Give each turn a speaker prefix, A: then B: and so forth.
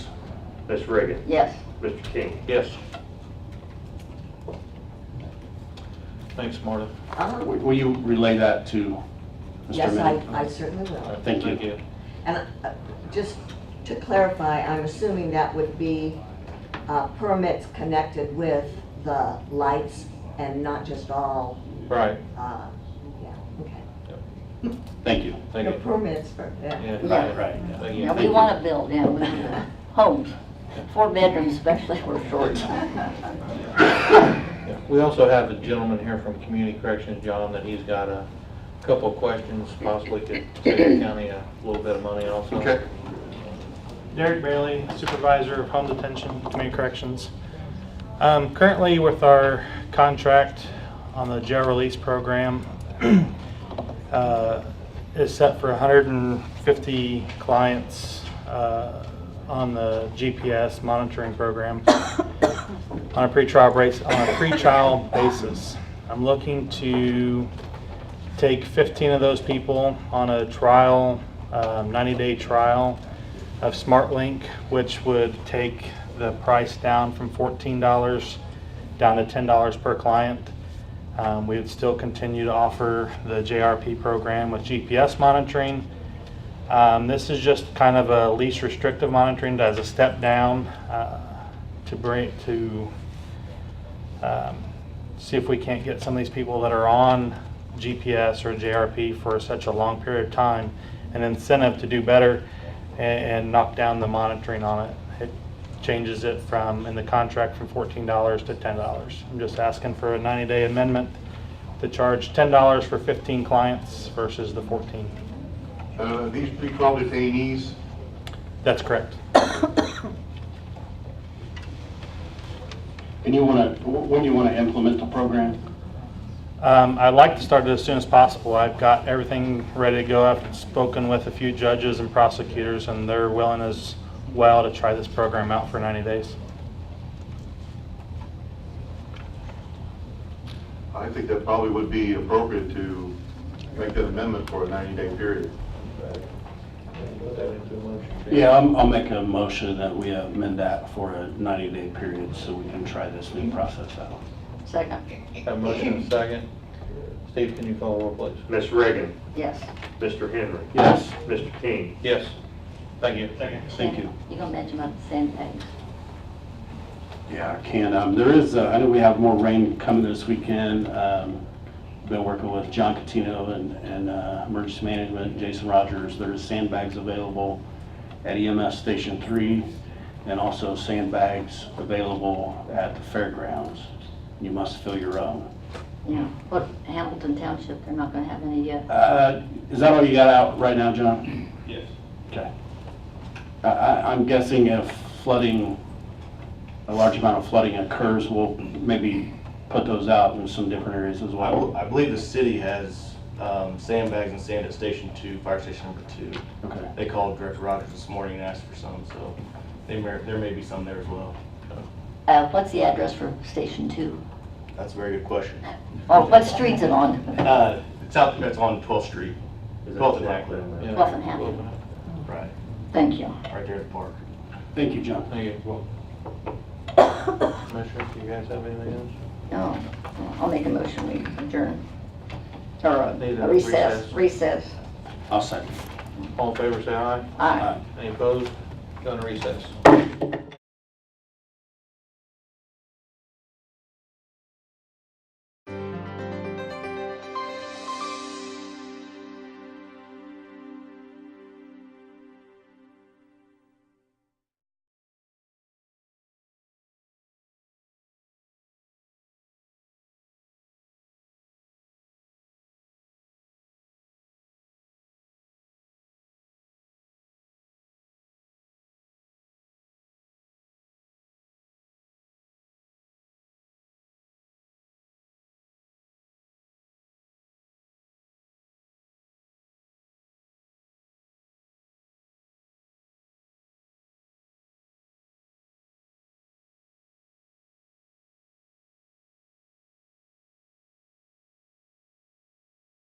A: Ms. Reagan.
B: Yes.
A: Mr. King.
C: Yes. Thanks, Marta.
B: Uh-huh.
D: Will will you relay that to Mr.
B: Yes, I,
D: Minnick?
B: I certainly will.
D: Thank you.
B: And uh, just to clarify, I'm assuming that would be uh, permits connected with the lights and not just all,
C: Right,
B: uh, yeah, okay.
D: Thank you.
C: thank
B: No,
C: you.
B: Permits for, yeah.
C: Yeah,
E: Yeah.
D: Right, right.
C: Thank
E: Yeah,
C: you.
E: we want to build, yeah, we, homes, four bedrooms especially, we're short.
C: Yeah. We also have a gentleman here from Community Corrections, John, that he's got a couple of questions, possibly could save the county a little bit of money also.
D: Okay.
F: Derek Bailey, Supervisor of Home Detention, Community Corrections. Um, Currently with our contract on the jail release program, uh, is set for 150 clients uh, on the GPS monitoring program on a pretrial base, on a pretrial basis. I'm looking to take 15 of those people on a trial, um, 90-day trial of SmartLink, which would take the price down from $14 down to $10 per client. Um, We would still continue to offer the JRP program with GPS monitoring. Um, This is just kind of a least restrictive monitoring as a step down uh, to bring, to um, see if we can't get some of these people that are on GPS or JRP for such a long period of time an incentive to do better a- and knock down the monitoring on it. It changes it from, in the contract, from $14 to $10. I'm just asking for a 90-day amendment to charge $10 for 15 clients versus the 14.
G: Uh, These people are detainees.
F: That's correct.
D: And you want to, when do you want to implement the program?
F: Um, I'd like to start it as soon as possible. I've got everything ready to go. I've spoken with a few judges and prosecutors, and they're willing as well to try this program out for 90 days.
G: I think that probably would be appropriate to make that amendment for a 90-day period.
C: Put that into a motion.
D: Yeah, I'm- I'll make a motion that we amend that for a 90-day period so we can try this new process out.
E: Second,
C: Have a motion and a second. Steve, can you call the roll, please?
A: Ms. Reagan.
E: yes.
A: Mr. Henry.
D: Yes,
A: Mr. King.
C: Yes. Thank you. Thank
D: thank you.
E: You gonna mention about the sandbags?
D: Yeah, I can. Um, There is, uh, I know we have more rain coming this weekend. Um, Been working with John Catino and and uh, Emergency Management, Jason Rogers. There's sandbags available at EMS Station 3 and also sandbags available at the fairgrounds. You must fill your own.
E: You know, what, Hamilton Township, they're not gonna have any yet.
D: Uh, Is that all you got out right now, John?
C: Yes.
D: Okay. I- I- I'm guessing if flooding, a large amount of flooding occurs, we'll maybe put those out in some different areas as
H: I
D: well.
H: bel- I believe the city has um, sandbags and sand at Station 2, Fire Station Number 2.
D: Okay.
H: They called Director Rogers this morning and asked for some, so they may- there may be some there as well.
E: Uh, what's the address for Station Two?
H: That's a very good question.
E: Or what street's it on?
H: Uh, It's out, that's on 12th Street.
A: Is that
H: 12th and
A: correct?
H: Hackler.
C: Yeah.
E: Twelfth and Hackler.
H: Right,
E: Thank you.
H: right there at the park.
D: Thank you, John.
C: Thank you. Commissioner, do you guys have anything else?
E: No, I'll make a motion, we adjourn. Or
C: right, need a
E: uh,
C: recess.
E: recess, recess.
D: I'll second.
C: All in favor, say aye.
E: Aye.
C: Any opposed? Go into recess.